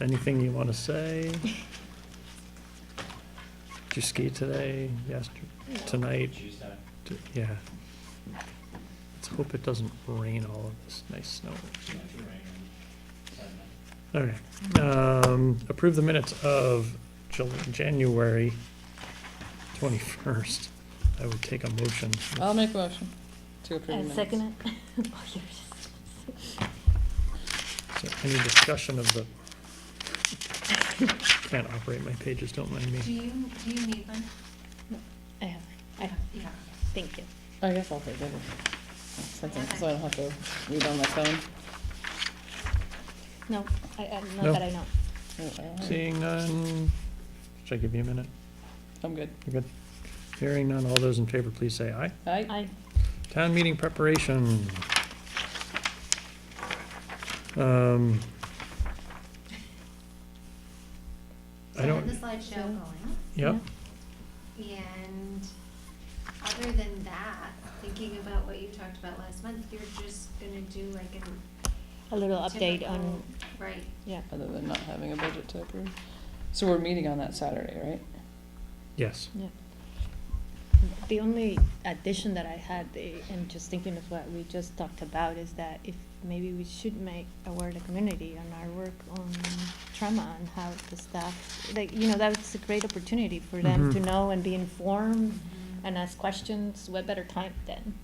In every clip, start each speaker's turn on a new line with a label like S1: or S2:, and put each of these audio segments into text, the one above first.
S1: anything you want to say? Did you ski today, yesterday, tonight?
S2: Tuesday.
S1: D- Yeah. Let's hope it doesn't rain all of this nice snow. Okay, um, approve the minutes of Jul- January twenty-first. I would take a motion.
S3: I'll make a motion to approve the
S4: And
S3: minutes.
S4: second it? Oh, yours.
S1: So Any discussion of the, can't operate my pages, don't mind
S5: Do
S1: me.
S5: you, do you need one?
S4: I have, I have,
S5: Yeah.
S4: thank you.
S3: I guess I'll take it. Something, so I don't have to read on my phone.
S4: No, I, I,
S1: No.
S4: not that I know.
S3: No, I don't have it.
S1: Seeing none, should I give you a minute?
S3: I'm good.
S1: You good? Hearing none, all those in favor, please say aye.
S3: Aye.
S4: I,
S1: Town meeting preparation. Um, I
S5: So I have
S1: don't,
S5: the slideshow going,
S1: yep,
S5: and other than that, thinking about what you talked about last month, you're just gonna do like a
S4: a little update on,
S5: typical- Right,
S4: yeah,
S3: Other than not having a budget to approve. So we're meeting on that Saturday, right?
S1: yes.
S4: yeah. The only addition that I had, eh, and just thinking of what we just talked about, is that if maybe we should make aware the community on our work on trauma and how the staff, like, you know, that's a great opportunity for them
S1: Mhm.
S4: to know and be informed and ask questions, what better time than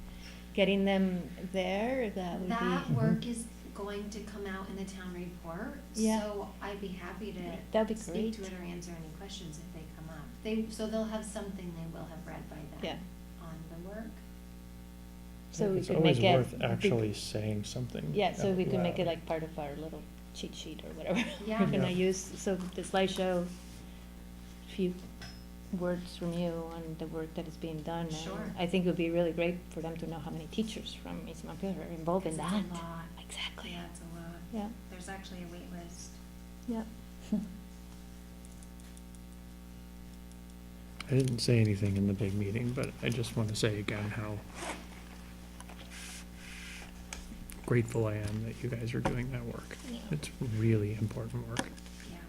S4: getting them there, that would be.
S5: that work is going to come out in the town report,
S4: Yeah.
S5: so I'd be happy to
S4: That'd be
S5: speak to
S4: great.
S5: it or answer any questions if they come up. They, so they'll have something they will have read by
S4: Yeah,
S5: then on the work.
S4: so we
S1: It's
S4: could
S1: always
S4: make it.
S1: worth Actually saying something.
S4: Yeah, so we
S1: out
S4: could make it
S1: loud.
S4: like part of our little cheat sheet or whatever.
S5: Yeah.
S4: We're gonna
S1: Yeah.
S4: use, so the slideshow, a few words from you on the work that is being done. and
S5: Sure.
S4: I think it would be really great for them to know how many teachers from East Montpelier are involved in
S5: 'Cause
S4: that.
S5: It's a lot,
S4: Exactly,
S5: yeah, it's a lot.
S4: yeah,
S5: There's actually a wait list.
S4: yeah.
S1: I didn't say anything in the big meeting, but I just want to say again how grateful I am that you guys are doing that work.
S4: Yeah.
S1: It's really important work,
S5: Yeah.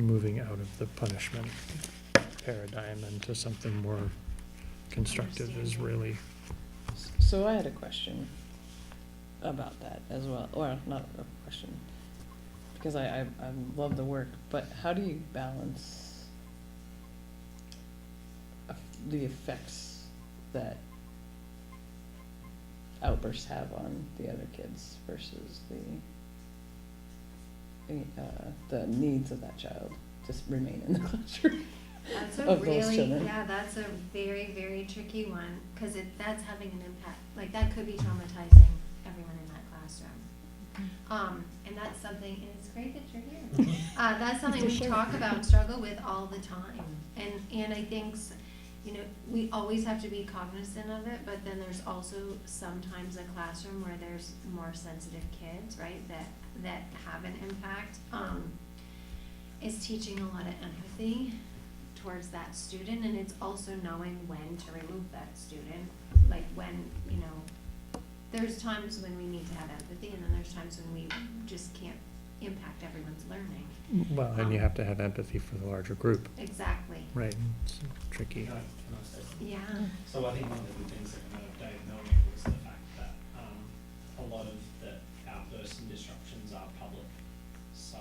S1: moving out of the punishment paradigm into something more constructive is really,
S3: So I had a question about that as well, or not a question, because I, I, I love the work, but how do you balance of- the effects that outbursts have on the other kids versus the the, uh, the needs of that child just remain in the classroom?
S5: That's a
S3: of those
S5: really,
S3: children.
S5: yeah, that's a very, very tricky one, cause it, that's having an impact, like, that could be traumatizing everyone in that classroom. Um, and that's something, and it's great that you're here, uh, that's something
S4: For
S5: we
S4: sure.
S5: talk about and struggle with all the time, and, and I think, s- you know, we always have to be cognizant of it, but then there's also sometimes a classroom where there's more sensitive kids, right, that, that have an impact, um, is teaching a lot of empathy towards that student and it's also knowing when to remove that student like when you know there's times when we need to have empathy and then there's times when we just can't impact everyone's learning
S1: well, and you have to have empathy for the larger group,
S5: exactly
S1: right? It's tricky.
S2: Can I- can I say something?
S5: yeah
S2: So I think one of the good things that came out of Dave Melnick was the fact that, um, a lot of the outbursts and disruptions are public. So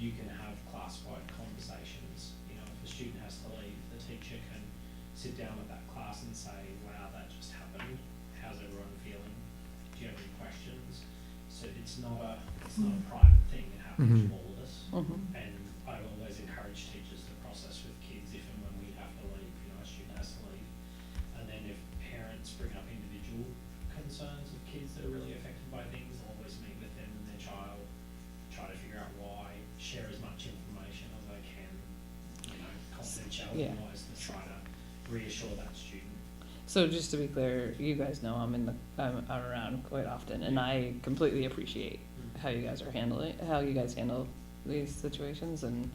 S2: you can have class-wide conversations, you know, if a student has to leave, the teacher can sit down with that class and say, wow, that just happened, how's everyone feeling? Do you have any questions? So it's not a, it's not a private thing, it happens
S1: Mhm.
S2: to all of us.
S3: Mm-hmm.
S2: And I always encourage teachers to process with kids if and when we have to leave, you know, a student has to leave. And then if parents bring up individual concerns of kids that are really affected by things, I'll always meet with them and their child, try to figure out why, share as much information as I can, you know, confidentiality
S3: Yeah.
S2: wise, to try to reassure that student.
S3: So just to be clear, you guys know I'm in the I'm, I'm around quite often, and I completely appreciate how you guys are handling how you guys handle these situations and